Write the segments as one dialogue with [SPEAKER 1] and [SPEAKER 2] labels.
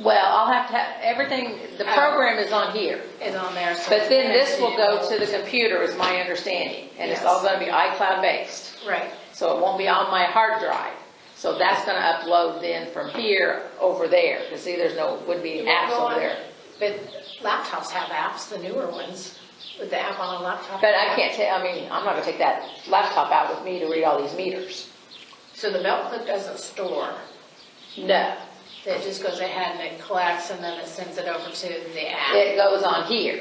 [SPEAKER 1] Well, I'll have to have, everything, the program is on here,
[SPEAKER 2] is on there. so-
[SPEAKER 1] but then this will go to the computer, is my understanding. And it's all gonna be iCloud-based,
[SPEAKER 2] Right,
[SPEAKER 1] so it won't be on my hard drive. So that's gonna upload then from here over there, because see, there's no, would be apps
[SPEAKER 2] Well,
[SPEAKER 1] over there.
[SPEAKER 2] But laptops have apps, the newer ones, with the app on a laptop.
[SPEAKER 1] But I can't ta, I mean, I'm not gonna take that laptop out with me to read all these meters.
[SPEAKER 2] So the belt clip doesn't store,
[SPEAKER 1] No,
[SPEAKER 2] it just goes ahead and it collects and then it sends it over to the app.
[SPEAKER 1] it goes on here.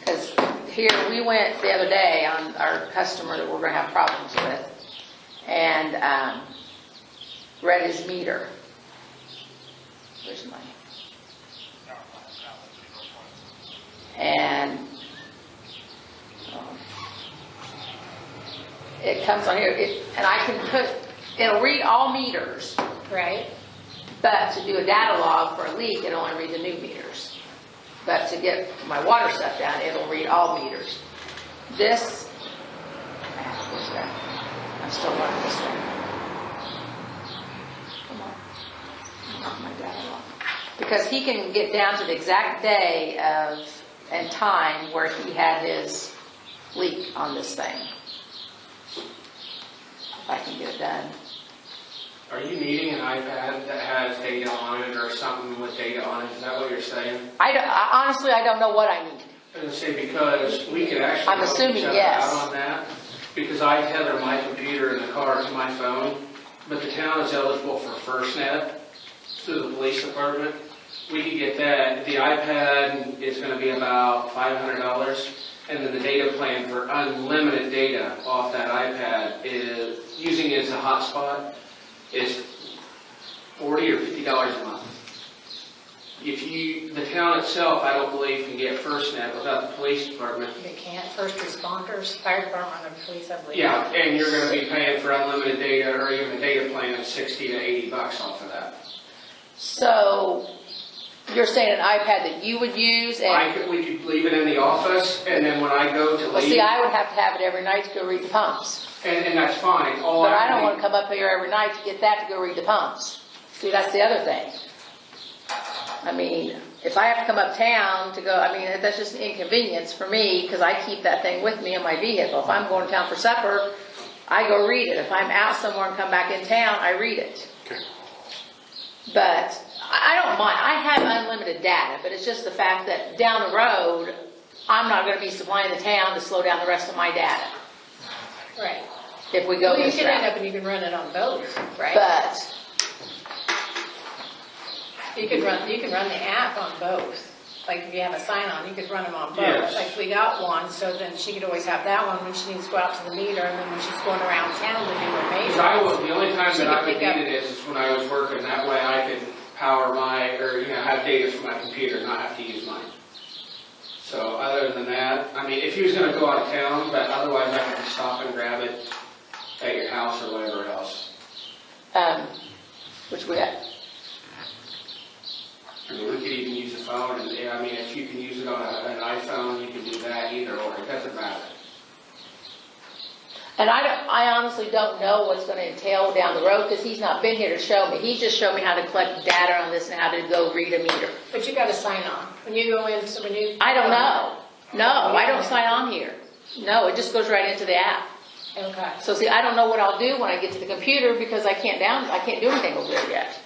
[SPEAKER 1] Because here, we went the other day on our customer that we're gonna have problems with, and, um, read his meter. Where's mine? And, um, it comes on here, it, and I can put, it'll read all meters,
[SPEAKER 2] Right?
[SPEAKER 1] but to do a data log for a leak, it'll only read the new meters. But to get my water stuff down, it'll read all meters. This, ah, where's that? I'm still running this thing. Come on. Not my data log. Because he can get down to the exact day of, and time where he had his leak on this thing. If I can get it done.
[SPEAKER 3] Are you needing an iPad that has data on it or something with data on it? Is that what you're saying?
[SPEAKER 1] I don't, I- honestly, I don't know what I need.
[SPEAKER 3] I was gonna say, because we could actually.
[SPEAKER 1] I'm
[SPEAKER 3] help
[SPEAKER 1] assuming
[SPEAKER 3] each other
[SPEAKER 1] yes.
[SPEAKER 3] Out on that, because I tether my computer in the car to my phone, but the town is eligible for FirstNet through the police department. We could get that. The iPad is gonna be about five hundred dollars, and then the data plan for unlimited data off that iPad is, using it as a hotspot, is forty or fifty dollars a month. If you, the town itself, I don't believe can get FirstNet without the police department.
[SPEAKER 2] You can't, first responders, fire department, and police, I believe.
[SPEAKER 3] Yeah, and you're gonna be paying for unlimited data or even a data plan of sixty to eighty bucks off of that.
[SPEAKER 1] So you're saying an iPad that you would use
[SPEAKER 3] I
[SPEAKER 1] and,
[SPEAKER 3] could, we could leave it in the office and then when I go to
[SPEAKER 1] well, see,
[SPEAKER 3] leave,
[SPEAKER 1] I would have to have it every night to go read the pumps.
[SPEAKER 3] and, and that's fine, all I.
[SPEAKER 1] But I don't
[SPEAKER 3] need-
[SPEAKER 1] want to come up here every night to get that to go read the pumps. See, that's the other thing. I mean, if I have to come uptown to go, I mean, that's just an inconvenience for me because I keep that thing with me in my vehicle. If I'm going to town for supper, I go read it. If I'm out somewhere and come back in town, I read it. But I I don't mind, I have unlimited data, but it's just the fact that down the road, I'm not gonna be supplying the town to slow down the rest of my data
[SPEAKER 2] Right.
[SPEAKER 1] if we go
[SPEAKER 2] Well, you
[SPEAKER 1] this
[SPEAKER 2] can end
[SPEAKER 1] route.
[SPEAKER 2] up and you can run it on both, right?
[SPEAKER 1] But,
[SPEAKER 2] You could run, you could run the app on both. Like if you have a sign on, you could run them on both.
[SPEAKER 3] Yes.
[SPEAKER 2] Like we got one, so then she could always have that one when she needs to go out to the meter and then when she's going around town to do her
[SPEAKER 3] Because I
[SPEAKER 2] major.
[SPEAKER 3] was, the only time
[SPEAKER 2] She
[SPEAKER 3] that
[SPEAKER 2] could
[SPEAKER 3] I would
[SPEAKER 2] pick up-
[SPEAKER 3] need it is when I was working, that way I could power my, or, you know, have data from my computer, and not have to use mine. So other than that, I mean, if he was gonna go out of town, but otherwise I could stop and grab it at your house or whatever else.
[SPEAKER 1] um, which we,
[SPEAKER 3] I mean, we could even use the phone, and, yeah, I mean, if you can use it on a- an iPhone, you can do that either, or it doesn't matter.
[SPEAKER 1] and I don't, I honestly don't know what's gonna entail down the road, cause he's not been here to show me. He just showed me how to collect data on this and how to go read a meter.
[SPEAKER 2] But you got a sign on. When you go in, so when you.
[SPEAKER 1] I don't know. No, I don't sign on here. No, it just goes right into the app.
[SPEAKER 2] Okay.
[SPEAKER 1] So see, I don't know what I'll do when I get to the computer because I can't down, I can't do anything over there yet.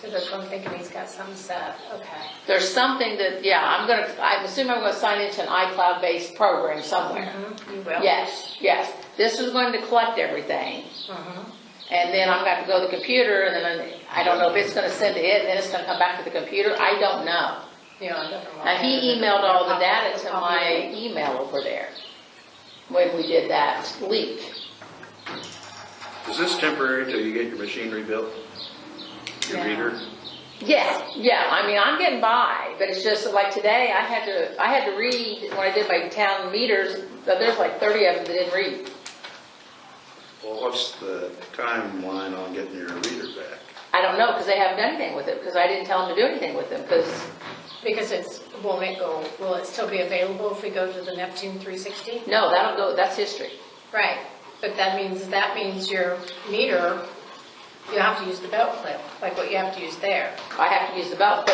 [SPEAKER 2] So that's what I'm thinking, he's got some set, okay.
[SPEAKER 1] There's something that, yeah, I'm gonna, I assume I'm gonna sign into an iCloud-based program somewhere.
[SPEAKER 2] Mm-hmm. You
[SPEAKER 1] Oh.
[SPEAKER 2] will?
[SPEAKER 1] Yes, yes. This is going to collect everything. Mm-hmm. And then I'm gonna have to go to the computer and then I don't know if it's gonna send to it and then it's gonna come back to the computer. I don't know.
[SPEAKER 2] Yeah, I don't know.
[SPEAKER 1] Now, he emailed all the data to my email over there when we did that leak.
[SPEAKER 4] Is this temporary till you get your machine rebuilt? Your
[SPEAKER 2] Yeah.
[SPEAKER 4] reader?
[SPEAKER 1] Yeah, yeah, I mean, I'm getting by, but it's just like today, I had to, I had to read, when I did my town meters, that there's like thirty of them that didn't read.
[SPEAKER 4] Well, what's the timeline on getting your reader back?
[SPEAKER 1] I don't know, because they haven't done anything with it, because I didn't tell them to do anything with them, because,
[SPEAKER 2] Because it's, won't it go, will it still be available if we go to the Neptune 360?
[SPEAKER 1] no, that'll go, that's history.
[SPEAKER 2] Right, but that means, that means your meter, you have to use the belt clip, like what you have to use there.
[SPEAKER 1] I have to use the belt,